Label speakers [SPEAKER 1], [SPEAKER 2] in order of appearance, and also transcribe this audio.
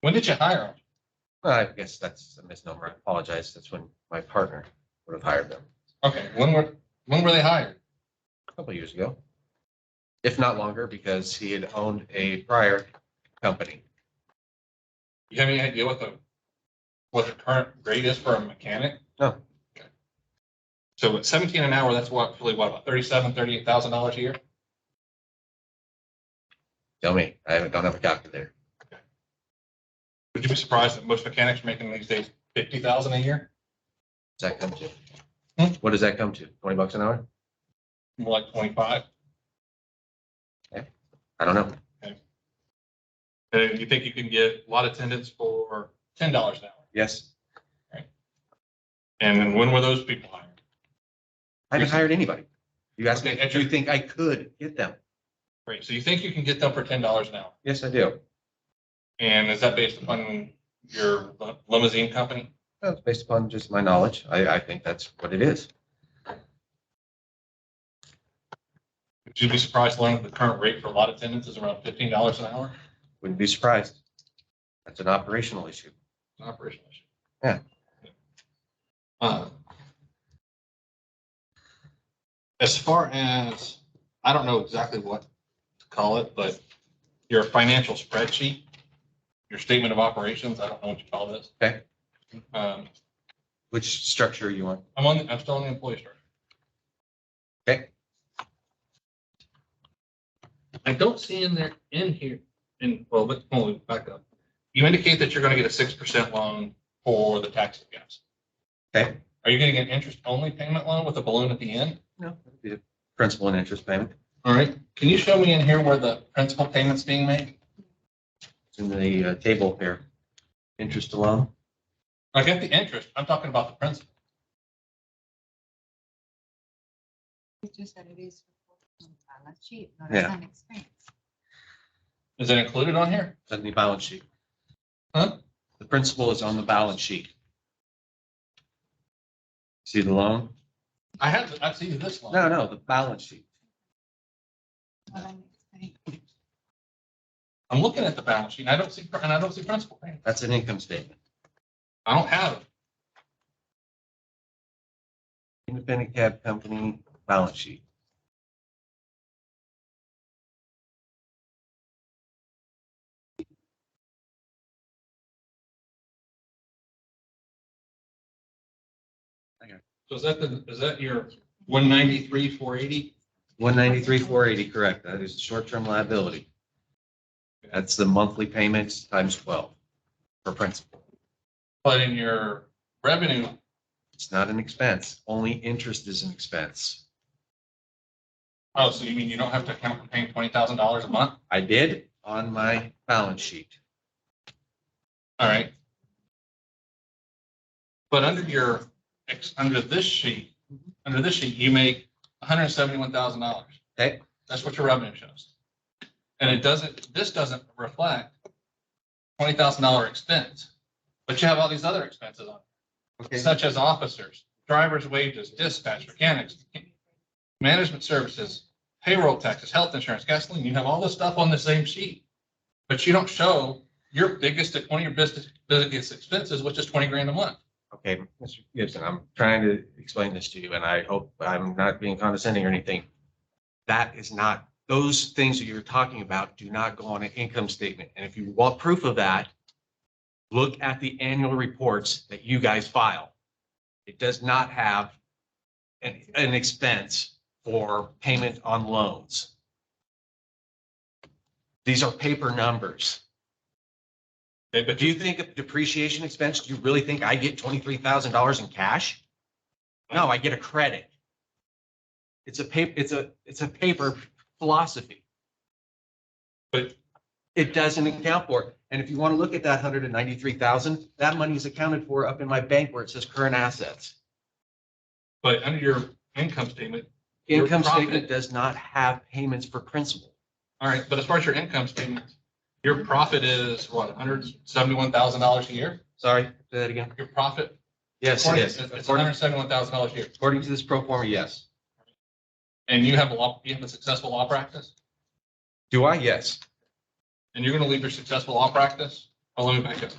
[SPEAKER 1] When did you hire him?
[SPEAKER 2] I guess that's a misnomer. I apologize. That's when my partner would have hired them
[SPEAKER 1] Okay, when were, when were they hired?
[SPEAKER 2] a couple of years ago. If not longer, because he had owned a prior company.
[SPEAKER 1] You have any idea what the, what the current grade is for a mechanic?
[SPEAKER 2] No.
[SPEAKER 1] Okay. So at seventeen an hour, that's what, really what, about thirty-seven, thirty-eight thousand dollars a year?
[SPEAKER 2] Tell me, I haven't- don't have a calculator.
[SPEAKER 1] Would you be surprised that most mechanics are making these days fifty thousand a year?
[SPEAKER 2] Does that come to?
[SPEAKER 1] Hmm?
[SPEAKER 2] What does that come to? Twenty bucks an hour?
[SPEAKER 1] More like twenty-five?
[SPEAKER 2] I don't know.
[SPEAKER 1] And you think you can get lot attendants for ten dollars an hour?
[SPEAKER 2] Yes.
[SPEAKER 1] And then when were those people hired?
[SPEAKER 2] I haven't hired anybody. You asked me,
[SPEAKER 1] Okay, and
[SPEAKER 2] do you think I could get them?
[SPEAKER 1] Great, so you think you can get them for ten dollars an hour?
[SPEAKER 2] Yes, I do.
[SPEAKER 1] And is that based upon your li- limousine company?
[SPEAKER 2] Well, it's based upon just my knowledge. I, I think that's what it is.
[SPEAKER 1] Would you be surprised to learn that the current rate for lot attendants is around fifteen dollars an hour?
[SPEAKER 2] Wouldn't be surprised. That's an operational issue.
[SPEAKER 1] It's an operational issue.
[SPEAKER 2] Yeah.
[SPEAKER 1] Uh, As far as, I don't know exactly what to call it, but your financial spreadsheet, your statement of operations, I don't know what you call this.
[SPEAKER 2] Okay.
[SPEAKER 1] Um,
[SPEAKER 2] Which structure you want?
[SPEAKER 1] I'm on, I'm still on the employee structure.
[SPEAKER 2] Okay.
[SPEAKER 1] I don't see in there, in here, in, well, but, hold on, back up. You indicate that you're gonna get a six percent loan for the tax gas.
[SPEAKER 2] Okay.
[SPEAKER 1] Are you getting an interest-only payment loan with a balloon at the end?
[SPEAKER 2] No, it'd be a principal and interest payment.
[SPEAKER 1] All right, can you show me in here where the principal payment's being made?
[SPEAKER 2] It's in the uh, table here. Interest alone.
[SPEAKER 1] I get the interest, I'm talking about the principal.
[SPEAKER 3] It's just that it is reported on the balance sheet, not
[SPEAKER 2] Yeah.
[SPEAKER 3] as an expense.
[SPEAKER 1] Is it included on here?
[SPEAKER 2] It's on the balance sheet.
[SPEAKER 1] Huh?
[SPEAKER 2] The principal is on the balance sheet. See the loan?
[SPEAKER 1] I have, I see this one.
[SPEAKER 2] No, no, the balance sheet.
[SPEAKER 3] Not an expense.
[SPEAKER 1] I'm looking at the balance sheet, and I don't see, and I don't see principal payment.
[SPEAKER 2] That's an income statement.
[SPEAKER 1] I don't have it.
[SPEAKER 2] Independent cab company balance sheet.
[SPEAKER 1] So is that the, is that your one ninety-three, four eighty?
[SPEAKER 2] One ninety-three, four eighty, correct. That is short-term liability. That's the monthly payments times twelve for principal.
[SPEAKER 1] But in your revenue,
[SPEAKER 2] It's not an expense. Only interest is an expense.
[SPEAKER 1] oh, so you mean you don't have to account for paying twenty thousand dollars a month?
[SPEAKER 2] I did on my balance sheet.
[SPEAKER 1] All right. But under your, ex- under this sheet, under this sheet, you make hundred and seventy-one thousand dollars.
[SPEAKER 2] Okay.
[SPEAKER 1] That's what your revenue shows. And it doesn't, this doesn't reflect twenty thousand dollar expense, but you have all these other expenses on, it,
[SPEAKER 2] Okay.
[SPEAKER 1] such as officers, driver's wages, dispatch, mechanics, management services, payroll taxes, health insurance, gasoline, you have all this stuff on the same sheet. But you don't show your biggest, one of your business, biggest expenses, which is twenty grand a month.
[SPEAKER 2] Okay, Mr. Gibson, I'm trying to explain this to you and I hope I'm not being condescending or anything. That is not, those things that you're talking about do not go on an income statement. And if you want proof of that, look at the annual reports that you guys file. It does not have an, an expense for payment on loans. These are paper numbers.
[SPEAKER 1] Okay,
[SPEAKER 2] But do you think of depreciation expense, do you really think I get twenty-three thousand dollars in cash? No, I get a credit. It's a paper, it's a, it's a paper philosophy.
[SPEAKER 1] But-
[SPEAKER 2] It doesn't account for, it. and if you want to look at that hundred and ninety-three thousand, that money is accounted for up in my bank where it says current assets.
[SPEAKER 1] But under your income statement, Your
[SPEAKER 2] Income statement
[SPEAKER 1] profit.
[SPEAKER 2] does not have payments for principal.
[SPEAKER 1] all right, but as far as your income statement, your profit is what, hundred seventy-one thousand dollars a year?
[SPEAKER 2] Sorry, say that again.
[SPEAKER 1] Your profit?
[SPEAKER 2] Yes, it is.
[SPEAKER 1] It's
[SPEAKER 2] According,
[SPEAKER 1] hundred seventy-one thousand dollars a year.
[SPEAKER 2] according to this pro forma, yes.
[SPEAKER 1] And you have a law, you have a successful law practice?
[SPEAKER 2] Do I? Yes.
[SPEAKER 1] And you're gonna leave your successful law practice Well, let me back up.